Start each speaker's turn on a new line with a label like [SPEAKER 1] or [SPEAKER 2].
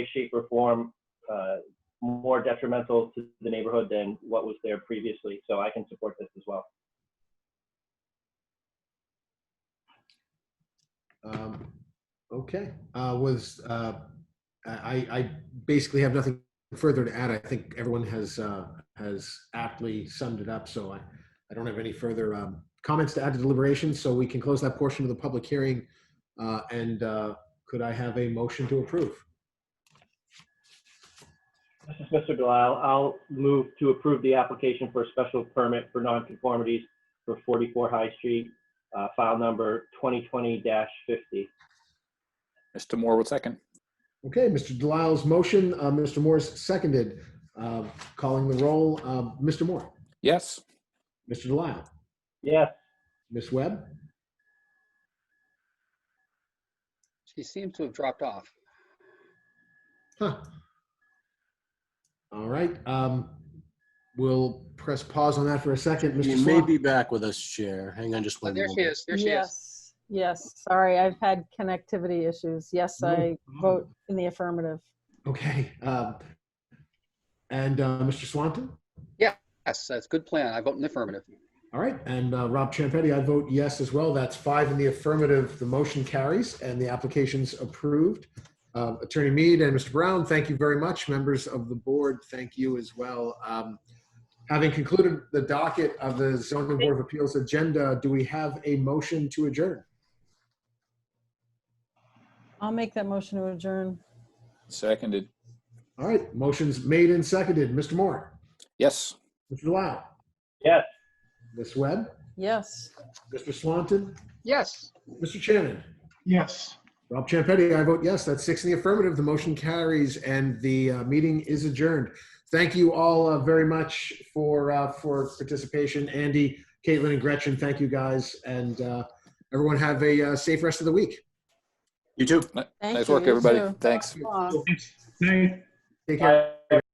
[SPEAKER 1] shape, or form uh, more detrimental to the neighborhood than what was there previously. So I can support this as well.
[SPEAKER 2] Um, Okay, uh, was, uh, I, I basically have nothing further to add. I think everyone has, uh, has aptly summed it up, so I, I don't have any further um, comments to add to deliberations, so we can close that portion of the public hearing. Uh, And uh, could I have a motion to approve?
[SPEAKER 1] This is Mr. Delisle. I'll move to approve the application for a special permit for nonconformities for 44 High Street, uh, file number 2020-50.
[SPEAKER 3] Mr. Moore will second.
[SPEAKER 2] Okay, Mr. Delisle's motion, uh, Mr. Moore's seconded, Uh, calling the roll, um, Mr. Moore,
[SPEAKER 3] Yes.
[SPEAKER 2] Mr. Delisle,
[SPEAKER 1] Yes,
[SPEAKER 2] Ms. Webb,
[SPEAKER 4] She seems to have dropped off.
[SPEAKER 2] Huh. All right. Um, we'll press pause on that for a second. Mr.
[SPEAKER 5] You may
[SPEAKER 2] Slot-
[SPEAKER 5] be back with us, Chair. Hang on just
[SPEAKER 4] Oh,
[SPEAKER 5] one
[SPEAKER 4] there she
[SPEAKER 5] moment.
[SPEAKER 4] is. There she is.
[SPEAKER 6] Yes, yes, sorry, I've had connectivity issues. Yes,
[SPEAKER 2] No
[SPEAKER 6] I
[SPEAKER 2] problem.
[SPEAKER 6] vote in the affirmative.
[SPEAKER 2] Okay. Um, and uh, Mr. Swanton?
[SPEAKER 4] Yes, that's a good plan. I vote in the affirmative.
[SPEAKER 2] All right. And uh, Rob Champetti, I vote yes as well. That's five in the affirmative. The motion carries and the application's approved. Uh, Attorney Mead and Mr. Brown, thank you very much. Members of the board, thank you as well. Um, having concluded the docket of the Zoning Board of Appeals agenda, do we have a motion to adjourn?
[SPEAKER 6] I'll make that motion to adjourn.
[SPEAKER 3] Seconded.
[SPEAKER 2] All right, motions made and seconded. Mr. Moore,
[SPEAKER 3] Yes.
[SPEAKER 2] Mr. Delisle,
[SPEAKER 1] yes.
[SPEAKER 2] Ms. Webb,
[SPEAKER 6] Yes.
[SPEAKER 2] Mr. Swanton,
[SPEAKER 4] Yes.
[SPEAKER 2] Mr. Shannon.
[SPEAKER 7] Yes.
[SPEAKER 2] Rob Champetti, I vote yes. That's six in the affirmative. The motion carries and the uh, meeting is adjourned. Thank you all uh, very much for, uh, for participation. Andy, Caitlin, and Gretchen, thank you guys. And uh, everyone have a uh, safe rest of the week.
[SPEAKER 5] You too.
[SPEAKER 6] Thank
[SPEAKER 3] Nice
[SPEAKER 6] you,
[SPEAKER 3] work,
[SPEAKER 6] you
[SPEAKER 3] everybody.
[SPEAKER 6] too.
[SPEAKER 3] Thanks.
[SPEAKER 6] Come on.
[SPEAKER 7] Night.
[SPEAKER 2] Take care.
[SPEAKER 1] Bye.